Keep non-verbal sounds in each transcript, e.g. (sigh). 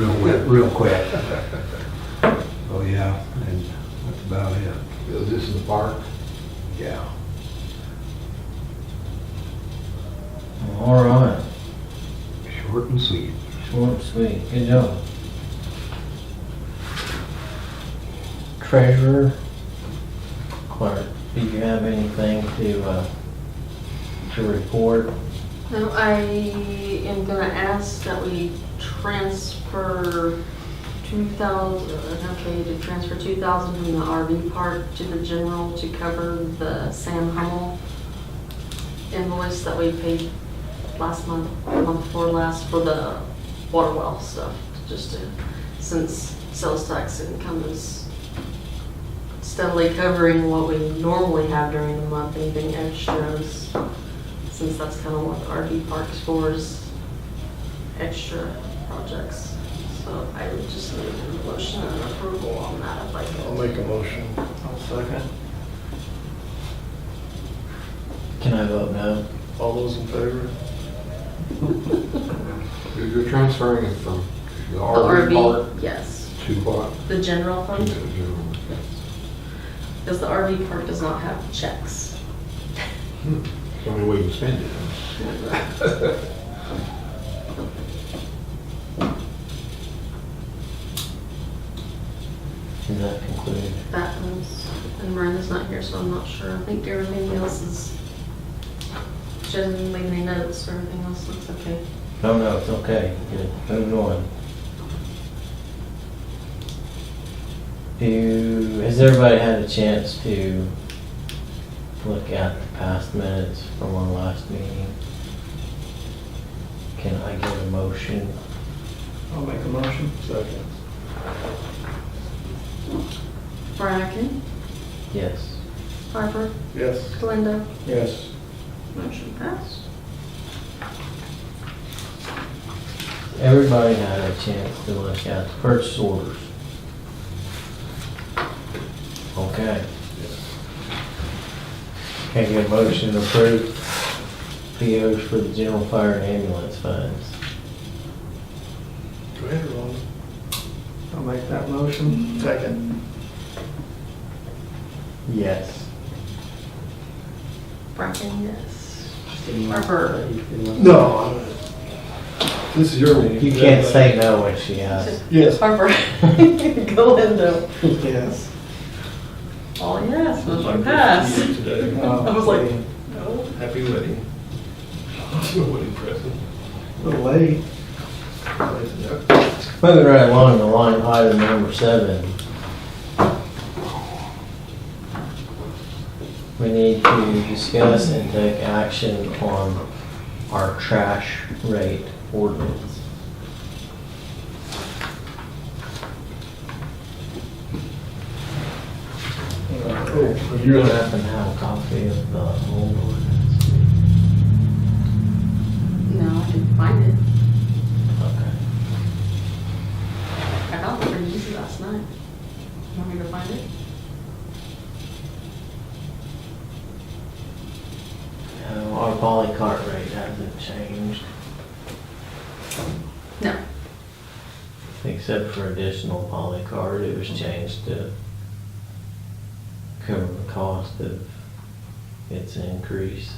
went real quick. Oh, yeah, and that's about it. Is this in the park? Yeah. All right, Short and sweet. short and sweet, good job. Treasurer, clerk, do you have anything to, uh, to report? No, I am gonna ask that we transfer two thousand, uh, okay, to transfer two thousand from the RV park to the general to cover the Sam Hummel invoice that we paid last month, the month before last for the water well stuff, just to, since sales tax income is steadily covering what we normally have during the month, anything extras since that's kind of what the RV parks for is extra projects. So I would just need a motion and approval on that if I I'll could. make a motion. Can I vote no? All those in favor? You're- You're transferring it from the The RV park RV, yes. to what? The general To fund, the general. because the RV park does not have checks. It's the Only way you can spend it. Is that concluded? That was, and Miranda's not here, so I'm not sure. I think everything else is, she doesn't leave any notes or anything else, looks okay. No, no, it's okay, good, moving on. Do, has everybody had a chance to look at the past minutes from our last meeting? Can I get a motion? I'll make a motion. Second. Bracken, Yes. Harper, Yes. Glenda, Yes. motion passed. Everybody had a chance to look at the purchase orders. Okay. Can I get a motion to approve POs for the general fire and ambulance funds? Go ahead, Ron. I'll make that motion. Second. Yes. Bracken, yes. Harper. You No. I'm- This is your meeting. can't say no when she asks. Yes. Harper. (laughs) Galindo. Yes. Oh, yes, motion passed. Today. I was like- Happy wedding. (laughs) Wedding present. A little late. Moving right along the line, item number seven. We need to discuss and take action on our trash rate ordinance. You don't happen to have a copy of the old ordinance? No, I didn't find it. Okay. I found it pretty easy last night. You want me to find it? Uh, Our poly cart rate hasn't changed, No. except for additional poly cart, it was changed to cover the cost of its increase.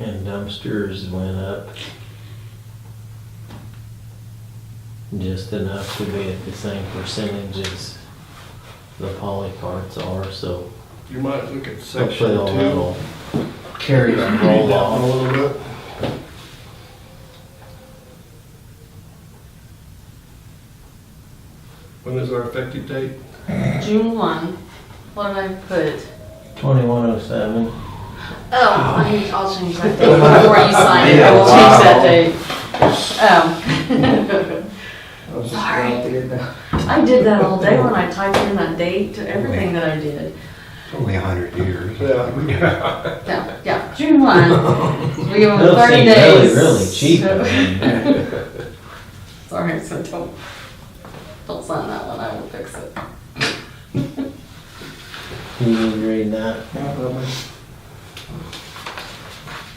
And dumpsters went up just enough to be at the same percentage as the poly carts are, so You might look at section Hopefully two. they'll that'll carry Read and that roll one A off. little bit. When is our effective date? June one, what did I put? Twenty-one oh seven. Oh, Ah. I need, I'll change that date (laughs) before you sign it. I will change that date. Um, I was just Sorry. out there now. Um, (laughs) I did that all day when I typed in that date to everything that I did. It's only a hundred years. (laughs) Yeah. No, yeah, (laughs) June one. We give them Those thirty seem days. Really, really cheap. so- I mean, (laughs) (laughs) Sorry, so don't, don't sign that one, I will fix it. You need to read that. Yeah, but I'm-